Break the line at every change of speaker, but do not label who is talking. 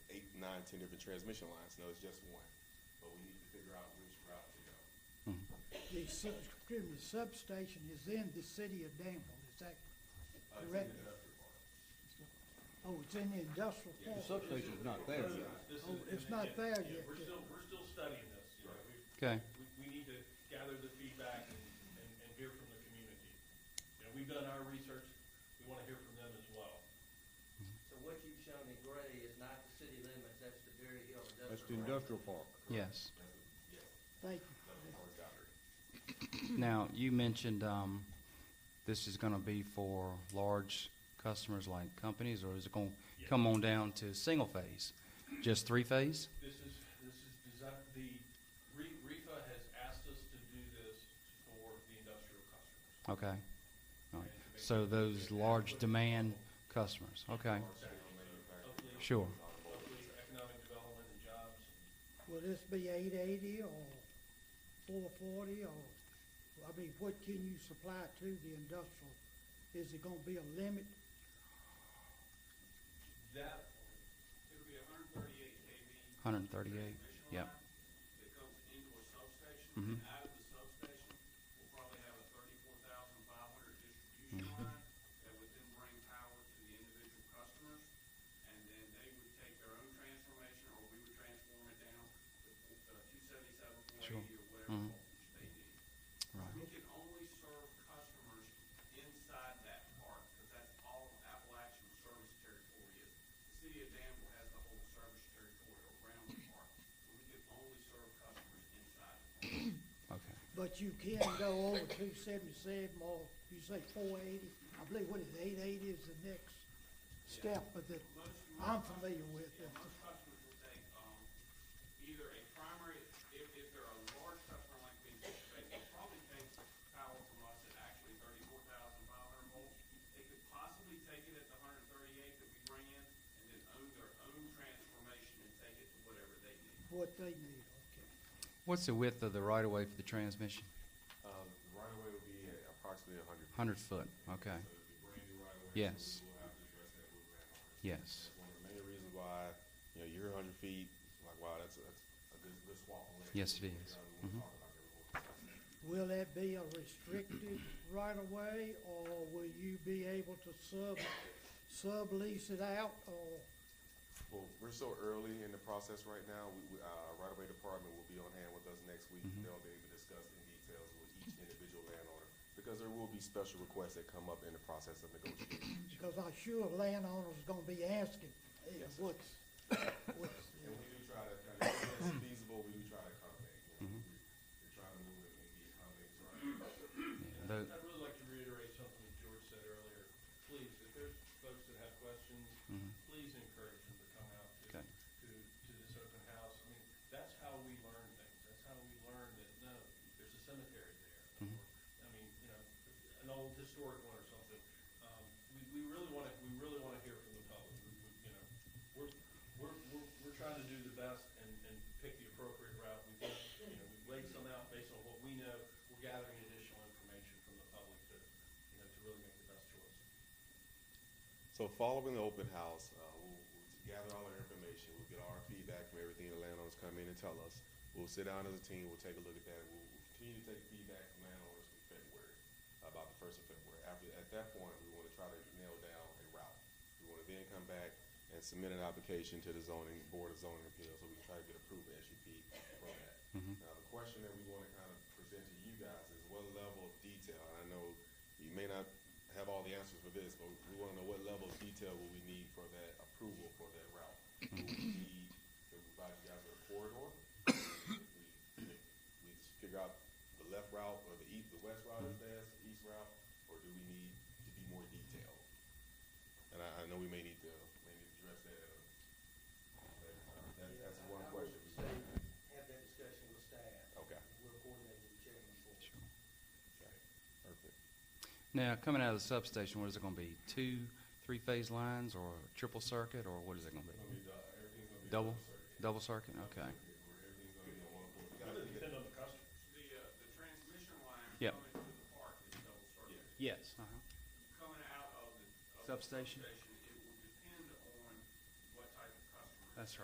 ten different transmission lines. No, it's just one. But we need to figure out which route to go.
The, sub- excuse me, substation is in the city of Danville, is that,
Uh, it's in
Correct.
the industrial park.
oh, it's in the industrial
Yeah.
park?
Substation's not there yet.
This is-
Oh, it's
and
not
again,
there
yeah,
yet,
We're
yeah.
still, we're still studying this, you know, we,
Okay.
we, we need to gather the feedback and, and, and hear from the community. You know, we've done our research, we wanna hear from them as well.
So what you've shown in gray is not the city limits, that's the Berry Hill Industrial.
That's the industrial park.
Yes.
Thank
Industrial park boundary.
Now, you mentioned um, this is going to be for large customers like companies, or is it going to
Yeah.
come on down to single phase? Just three phase?
This is, this is designed, the, Re- REFA has asked us to do this for the industrial customers.
Okay. All right. So those large demand customers. Okay.
Hopefully,
Sure.
hopefully economic development and jobs.
you. Will this be eight eighty or four forty or, I mean, what can you supply to the industrial? Is it gonna be a limit?
That,
It'll be hundred and thirty-eight KV.
138. Yep.
That comes into a substation,
Mhm.
and out of the substation, we'll probably have a thirty-four thousand five hundred distribution line that would then bring power to the individual customers, and then they would take their own transformation, or we would transform it down to two seventy-seven, four
Sure.
eighty, or whatever
Mhm.
voltage they need.
Right.
We can only serve customers inside that park, because that's all Appalachian service territory is. The city of Danville has the whole service territory around the park, so we can only serve customers inside the park.
Okay.
But you can go over two seventy-seven or you say four eighty, I believe what is eight eighty is the next step, but that I'm familiar with
Yeah,
it.
most customers will take, um, either a primary, if, if they're a large customer like we anticipate, they'll probably take power from us at actually thirty-four thousand five hundred volts. They could possibly take it at the hundred and thirty-eight that we bring in, and then own their own transformation and take it to whatever they need.
what they need, okay.
What's the width of the right of way for the transmission?
Um, the right of way would be approximately a hundred.
100 foot.
So it'd
Okay.
be brand new right away.
Yes.
We'll have to address that with landowners.
Yes.
That's one of the main reasons why, you know, you're a hundred feet, like, wow, that's, a- that's a good, good swap. of land.
Yes, it
You
is.
know, we
Mm-hmm.
wanna talk about that real quick.
Will that be a restricted right of way, or will you be able to sub, sublease it out, or,
Well, we're so early in the process right now, we, we, uh, right away department will be on hand with us next week. They'll be able to discuss in details with each individual landowner, because there will be special requests that come up in the process of negotiation.
because I'm sure landowners gonna be asking, eh,
Yes, sir.
what's, what's,
And we do try to, kind of, when it's feasible, we do try to accommodate, you know, we, we're trying to move it and be accommodating to our,
Yeah,
I'd
tho-
I'd really like to reiterate something that George said earlier. Please, if there's folks that have questions,
mm-hmm.
please encourage them to come out to,
Okay.
to, to this open house. I mean, that's how we learn things. That's how we learn that, no, there's a cemetery there. or, I mean, you know, an old historic one or something. Um, we, we really wanna, we really wanna hear from the public. We, we, you know, we're, we're, we're, we're trying to do the best and, and pick the appropriate route. We've, got- you know, we've laid some out based on what we know. We're gathering additional information from the public to, you know, to really make the best choice.
So following the open house, uh, we'll, we'll gather all our information, we'll get our feedback from everything the landowners come in and tell us. We'll sit down as a team, we'll take a look at that, we'll, we'll continue to take feedback from landowners in February, about the first of February. After, at that point, we wanna try to nail down a route. We wanna then come back and submit an application to the zoning, Board of Zoning Appeals, so we can try to get approved SUP from that. Now, the question that we wanna kind of present to you guys is what level of detail, and I know you may not have all the answers for this, but we wanna know what level of detail will we need for that approval for that route? Will we need to provide you guys with a corridor? If We we just figure out the left route or the east, the west route is best, the east route, or do we need to be more detailed? And I, I know we may need to, may need to address that, uh, that, uh, that- that's
Yeah, I-
one
I would
question.
say Have that discussion with staff.
Okay.
and We'll coordinate with the chairman for it.
Okay, Perfect.
Now, coming out of the substation, what is it going to be? Two, three phase lines, or triple circuit, or what is it going to be?
Gonna be, uh, everything's gonna be
Double,
circuit.
double circuit.
Where
Okay.
everything's gonna be on one point. We
It's gonna
gotta-
depend on the customer.
The, uh, the transmission line
Yep.
coming to the park is double circuit.
Yes. Uh-huh.
Coming out of the. of the
Substation.
Substation